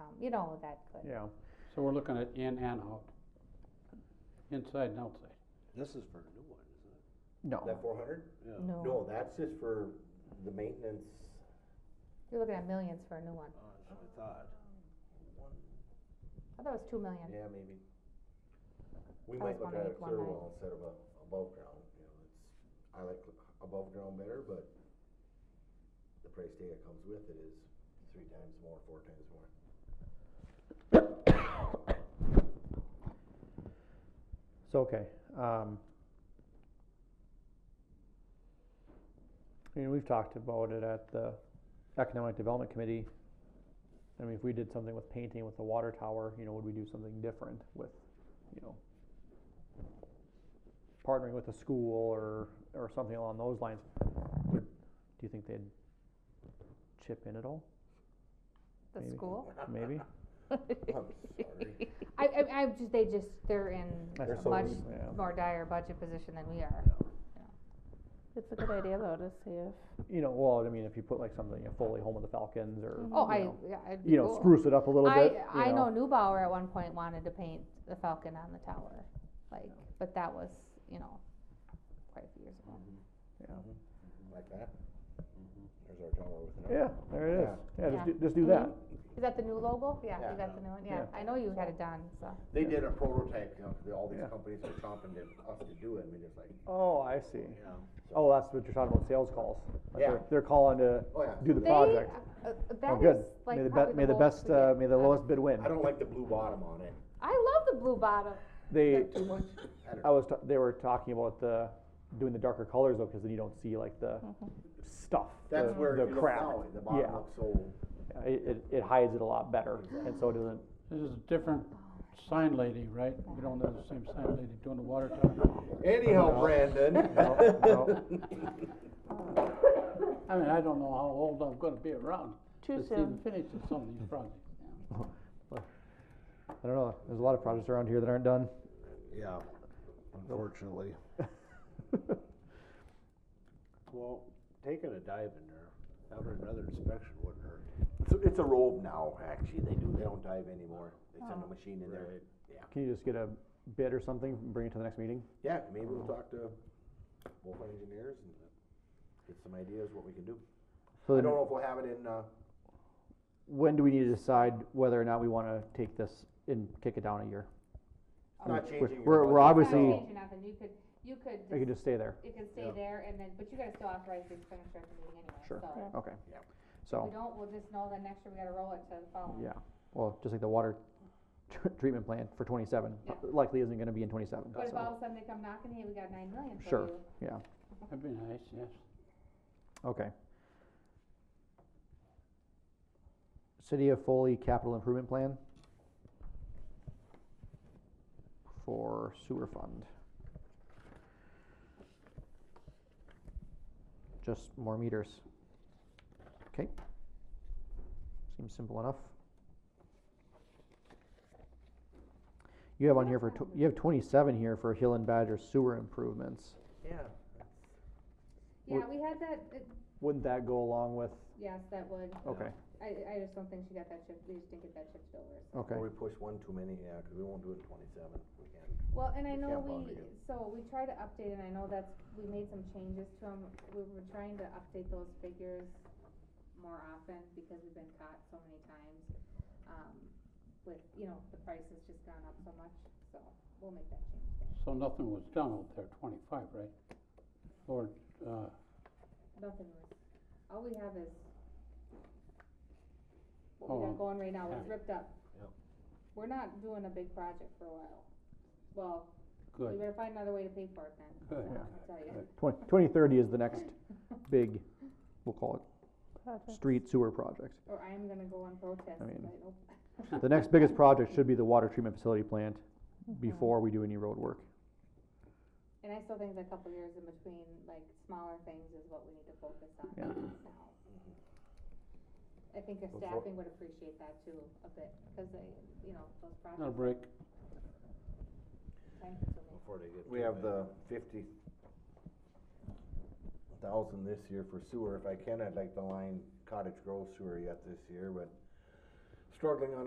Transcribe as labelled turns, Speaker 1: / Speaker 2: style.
Speaker 1: um, you know, that could.
Speaker 2: yeah.
Speaker 3: So we're looking at in and out, inside and outside.
Speaker 4: This is for a new one, isn't it?
Speaker 2: No,
Speaker 5: That four hundred?
Speaker 4: Yeah.
Speaker 1: No,
Speaker 5: No, that's just for the maintenance.
Speaker 1: you're looking at millions for a new one.
Speaker 4: Oh, that's what I thought.
Speaker 1: I thought it was two million.
Speaker 5: Yeah, maybe. We
Speaker 1: I was
Speaker 5: might look at a
Speaker 1: 108,
Speaker 5: clear
Speaker 1: 109.
Speaker 5: well instead of a above ground, you know, it's, I like above ground better, but the price tag that comes with it is three times more, four times more.
Speaker 2: it's okay. Um, I mean, we've talked about it at the Economic Development Committee. I mean, if we did something with painting with the water tower, you know, would we do something different with, you know, partnering with a school or, or something along those lines? Would, do you think they'd chip in at all,
Speaker 1: The
Speaker 2: Maybe.
Speaker 1: school?
Speaker 2: maybe?
Speaker 5: I'm sorry.
Speaker 1: I, I, I just, they just, they're in
Speaker 2: That's
Speaker 1: a
Speaker 2: so
Speaker 1: much
Speaker 2: deep, yeah.
Speaker 1: more dire budget position than we are.
Speaker 6: It's a good idea though to see if
Speaker 2: You know, well, I mean, if you put like something, a Foley Home of the Falcons or,
Speaker 1: Oh,
Speaker 2: you
Speaker 1: I,
Speaker 2: know,
Speaker 1: yeah, it'd be
Speaker 2: you know,
Speaker 1: cool.
Speaker 2: spruce it up a little
Speaker 1: I,
Speaker 2: bit. you
Speaker 1: I know Newbauer at one point wanted to paint the falcon on the tower, like, but that was, you know, quite a few years ago.
Speaker 5: Like that? There's our tower with it.
Speaker 2: Yeah, there it is. Yeah, just
Speaker 1: Yeah.
Speaker 2: do, just do
Speaker 1: Mhm.
Speaker 2: that.
Speaker 1: Is that the new logo? Yeah, you
Speaker 5: Yeah.
Speaker 1: got the new one, yeah,
Speaker 2: Yeah.
Speaker 1: I know you had it done, so,
Speaker 5: They did a prototype, you know, 'cause all these
Speaker 2: Yeah.
Speaker 5: companies are chomping at us to do it, and we just like,
Speaker 2: Oh, I see.
Speaker 5: you know.
Speaker 2: Oh, that's what you're talking about, sales calls. Like
Speaker 5: Yeah.
Speaker 2: they're, they're calling to
Speaker 5: Oh, yeah.
Speaker 2: do the
Speaker 1: they,
Speaker 2: project.
Speaker 1: uh, uh,
Speaker 2: Oh,
Speaker 1: that
Speaker 2: good.
Speaker 1: is like
Speaker 2: May the
Speaker 1: probably
Speaker 2: best, may the
Speaker 1: lowest
Speaker 2: best,
Speaker 1: we
Speaker 2: uh,
Speaker 1: get
Speaker 2: may the
Speaker 1: on-
Speaker 2: lowest bid win.
Speaker 5: I don't like the blue bottom on it.
Speaker 1: I love the blue bottom,
Speaker 2: They,
Speaker 5: Too much? I don't
Speaker 2: I was, ta- they were talking about the, doing the darker colors though, cause then you don't see like the
Speaker 1: Mm-hmm.
Speaker 2: stuff, the,
Speaker 5: That's where
Speaker 2: the
Speaker 5: if you look
Speaker 2: crap.
Speaker 5: now, the bottom
Speaker 2: Yeah.
Speaker 5: looks so.
Speaker 2: Yeah, It, it, it hides it a lot better and so it doesn't,
Speaker 3: This is a different sign lady, right? We don't have the same sign lady doing the water tower.
Speaker 5: Anyhow, Brandon.
Speaker 3: I mean, I don't know how old I'm gonna be around
Speaker 6: too
Speaker 3: to see the
Speaker 6: soon.
Speaker 3: finish of some of these projects. yeah.
Speaker 2: I don't know, there's a lot of projects around here that aren't done.
Speaker 5: Yeah, unfortunately.
Speaker 4: Well, taking a dive in there, having another inspection wouldn't hurt.
Speaker 5: It's, a- it's a robe now, actually, they do, they don't dive anymore, they send a
Speaker 2: Oh.
Speaker 5: machine in there.
Speaker 2: Can you just get a bid or something, and bring it to the next meeting?
Speaker 5: Yeah, maybe
Speaker 4: Oh.
Speaker 5: we'll talk to both our engineers and get some ideas what we can do.
Speaker 2: So
Speaker 5: I
Speaker 2: then-
Speaker 5: don't know if we'll have it in, uh,
Speaker 2: when do we need to decide whether or not we want to take this and kick it down a year? We're-
Speaker 5: not changing your
Speaker 2: we're- we're
Speaker 5: budget.
Speaker 2: obviously-
Speaker 1: Not changing nothing. you could, you could,
Speaker 2: We
Speaker 1: just-
Speaker 2: could just stay there.
Speaker 1: it can stay
Speaker 5: Yeah.
Speaker 1: there, and then, but you gotta still authorize the expenditure at the meeting anyway, so.
Speaker 2: Sure. Okay.
Speaker 5: Yep.
Speaker 1: If we
Speaker 2: So,
Speaker 1: don't, we'll just know that next year we gotta roll it to the following.
Speaker 2: yeah, well, just like the water tr- treatment plant for twenty-seven,
Speaker 1: Yeah.
Speaker 2: likely isn't gonna be in twenty-seven,
Speaker 1: But if all
Speaker 2: so,
Speaker 1: of a sudden they come knocking, hey, we got nine million for
Speaker 2: Sure.
Speaker 1: you,
Speaker 2: yeah,
Speaker 3: That'd be nice, yes.
Speaker 2: okay. City of Foley Capital Improvement Plan for sewer fund. Just more meters. Okay. Seems simple enough. You have on here for, tw- you have twenty-seven here for Hill and Badger sewer improvements.
Speaker 5: Yeah.
Speaker 1: yeah,
Speaker 2: Would-
Speaker 1: we had that, it-
Speaker 2: Wouldn't that go along with,
Speaker 1: yes, that would,
Speaker 2: okay,
Speaker 1: I, I just don't think she got that shift, we just didn't get that shift over, so.
Speaker 2: okay,
Speaker 5: Or we push one too many, yeah, cause we won't do it in twenty-seven, we can't.
Speaker 1: Well, and I
Speaker 5: We
Speaker 1: know
Speaker 5: can't bond
Speaker 1: we,
Speaker 5: again.
Speaker 1: so we tried to update, and I know that's, we made some changes to them, we were trying to update those figures more often, because we've been caught so many times, um, with, you know, the price has just gone up so much, so we'll make that change. then.
Speaker 3: So nothing was done out there, twenty-five, right? Or, uh,
Speaker 1: Nothing was, all we have is, what
Speaker 3: Oh,
Speaker 1: we got going right now, it's
Speaker 3: yeah.
Speaker 1: ripped up.
Speaker 5: Yep.
Speaker 1: We're not doing a big project for a while, well, we
Speaker 3: good,
Speaker 1: better find another way to pay for it then,
Speaker 3: good.
Speaker 1: so, I'll tell you.
Speaker 2: twenty, twenty thirty is the next big, we'll call it,
Speaker 6: Project.
Speaker 2: street sewer project.
Speaker 1: Or I am gonna go on protest,
Speaker 2: I
Speaker 1: but
Speaker 2: mean-
Speaker 1: I don't
Speaker 2: The next biggest project should be the water treatment facility plant before we do any road work.
Speaker 1: And I still think the couple years in between, like smaller things is what we need to focus on
Speaker 2: Yeah.
Speaker 1: now. I think your
Speaker 5: Before-
Speaker 1: staffing would appreciate that too a bit, cause they, you know, those
Speaker 3: Not a
Speaker 1: projects
Speaker 3: break.
Speaker 1: are time consuming.
Speaker 4: Before they get
Speaker 5: We
Speaker 4: too
Speaker 5: have
Speaker 4: big.
Speaker 5: the fifty thousand this year for sewer, if I can, I'd like to line Cottage Grove sewer yet this year, but struggling on a